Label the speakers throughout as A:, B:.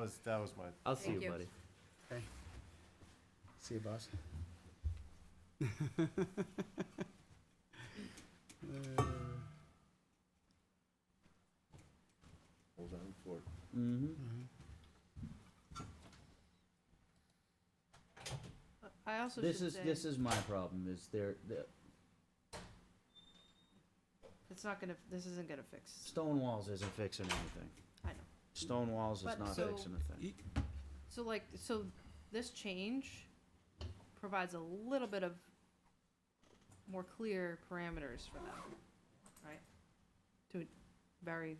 A: was, that was my,
B: I'll see
C: Thank
B: you,
C: you.
B: buddy.
D: See you, boss.
A: hold on for it.
D: Mm-hmm.
C: I also
D: This
C: should
D: is,
C: say,
D: this is my problem, is there, the
C: it's not gonna, this isn't gonna fix,
D: stone walls isn't fixing anything.
C: I know.
D: Stone walls is
C: But
D: not
C: so-
D: fixing a
E: E-,
D: thing.
C: So like, so this change provides a little bit of more clear parameters for them, right? To a- very,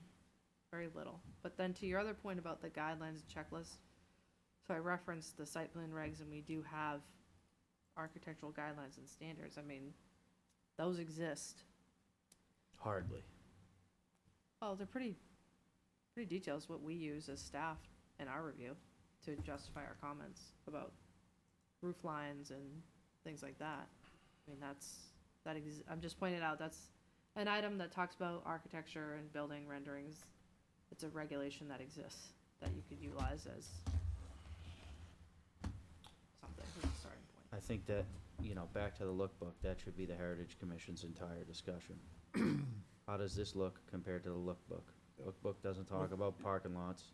C: very little. But then to your other point about the guidelines and checklist, so I referenced the site plan regs and we do have architectural guidelines and standards. I mean, those exist.
D: Hardly.
C: Well, they're pretty, pretty detailed, is what we use as staff in our review to justify our comments about roof lines and things like that. I mean, that's, that ex, I'm just pointing out, that's an item that talks about architecture and building renderings. It's a regulation that exists, that you could utilize as something, as a starting point.
D: I think that, you know, back to the lookbook, that should be the Heritage Commission's entire discussion. How does this look compared to the lookbook? Lookbook doesn't talk about parking lots.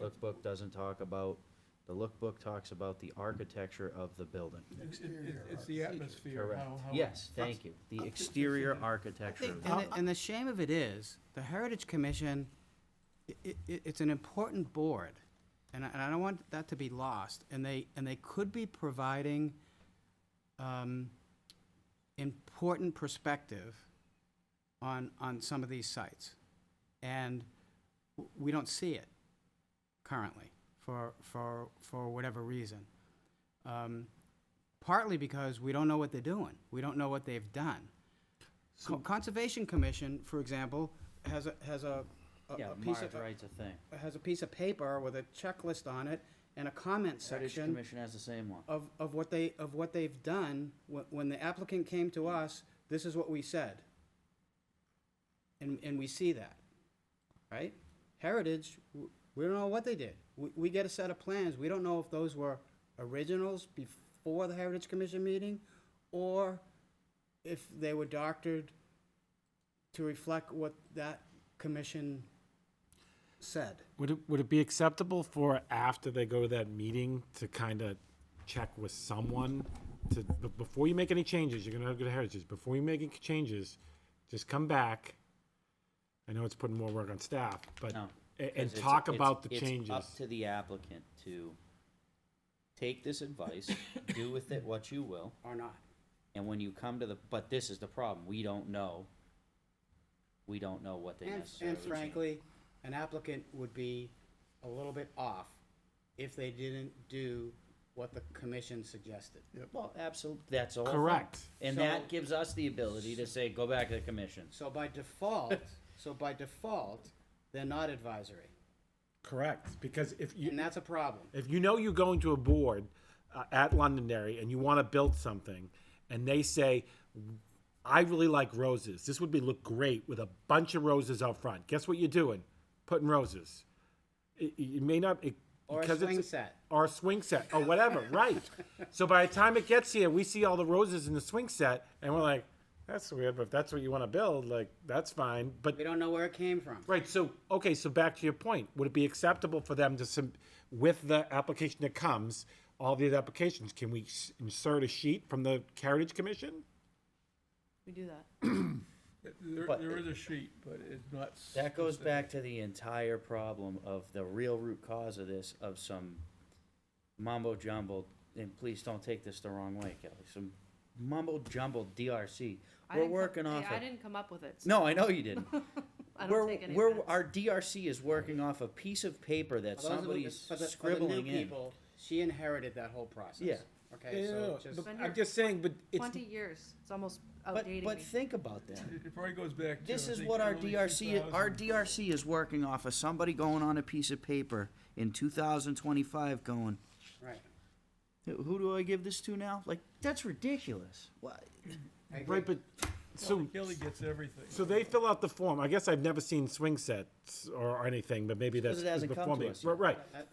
D: Lookbook doesn't talk about, the lookbook talks about the architecture of the building.
F: It's, it- it's- it's the atmosphere,
D: Correct.
F: how, how.
D: Yes, thank you. The exterior architecture. of the-
E: And the, and the shame of it is, the Heritage Commission, i- i- it's an important board, and I, and I don't want that to be lost, and they, and they could be providing, um, important perspective on, on some of these sites. And w- we don't see it currently, for, for, for whatever reason. Um, Partly because we don't know what they're doing, we don't know what they've done. Co- Conservation Commission, for example, has a, has a, a-
D: Yeah,
E: a piece
D: Marge
E: of,
D: writes a thing.
E: has a piece of paper with a checklist on it and a comment
D: Heritage
E: section
D: Commission has the same one.
E: of, of what they, of what they've done. When, when the applicant came to us, this is what we said. And, and we see that, right? Heritage, w- we don't know what they did. We, we get a set of plans, we don't know if those were originals before the Heritage Commission meeting, or if they were doctored to reflect what that commission said.
G: Would it, would it be acceptable for after they go to that meeting to kind of check with someone to, b- before you make any changes, you're gonna go to Heritage, before you make any changes, just come back. I know it's putting more work on staff, but,
D: No,
G: a-
D: because
G: and
D: it's-
G: talk
D: it's-
G: about the
D: It's up
G: changes.
D: to the applicant to take this advice, do with it what you will,
E: Or not.
D: and when you come to the, but this is the problem, we don't know. We don't know what they
E: And,
D: necessarily
E: and
D: change.
E: frankly, an applicant would be a little bit off if they didn't do what the commission suggested.
D: Well, absolutely, that's all.
G: Correct.
D: And
E: So-
D: that gives us the ability to say, go back to the commission.
E: So by default, so by default, they're not advisory,
G: Correct, because if you,
E: and that's a problem.
G: If you know you're going to a board uh, at Londonderry and you want to build something, and they say, "I really like roses. This would be look great with a bunch of roses out front." Guess what you're doing? Putting roses. It, it it may not it,
E: Or a
G: because
E: swing
G: it's,
E: set.
G: or a swing set or whatever. right. So by the time it gets here, we see all the roses in the swing set, and we're like, "That's weird." But if that's what you want to build, like that's fine. But
E: We don't know where it came from.
G: Right, so, okay, so back to your point, would it be acceptable for them to, sub- with the application that comes, all these applications, can we s- insert a sheet from the Heritage Commission?
C: We do that.
F: There,
D: But-
F: there is a sheet, but it's not.
D: That goes
F: specific.
D: back to the entire problem of the real root cause of this, of some mumbo jumbo, and please don't take this the wrong way, Kelly, some mumbo jumbo DRC.
C: I
D: We're
C: didn't co-
D: working
C: hey,
D: off
C: I
D: of,
C: didn't come up with it. so
D: no, I know you didn't.
C: I don't
D: We're,
C: take any
D: we're,
C: offense.
D: our DRC is working off a piece of paper that
E: For those of you-
D: somebody's
E: for the- for the new
D: scribbling in.
E: people, She inherited that whole process.
D: Yeah.
E: Okay, so just,
C: Been here
G: I'm just saying, but it's,
C: Twenty years, it's almost
D: But,
C: outdating
D: but
C: me.
D: think about that.
F: It it probably goes back to.
D: This
F: I
D: is
F: think,
D: what our
F: early
D: DRC, our
F: 2000s.
D: DRC is working off of somebody going on a piece of paper in two thousand twenty-five going,
E: right.
D: Who who do I give this to now? Like that's ridiculous. What?
E: I agree.
G: right, but, so,
F: Kelly gets everything.
G: so they fill out the form, I guess I've never seen swing sets or anything, but maybe that's.
D: it hasn't
G: the
D: come
G: form
D: to
G: they-
D: us yet.
G: Right,
E: That-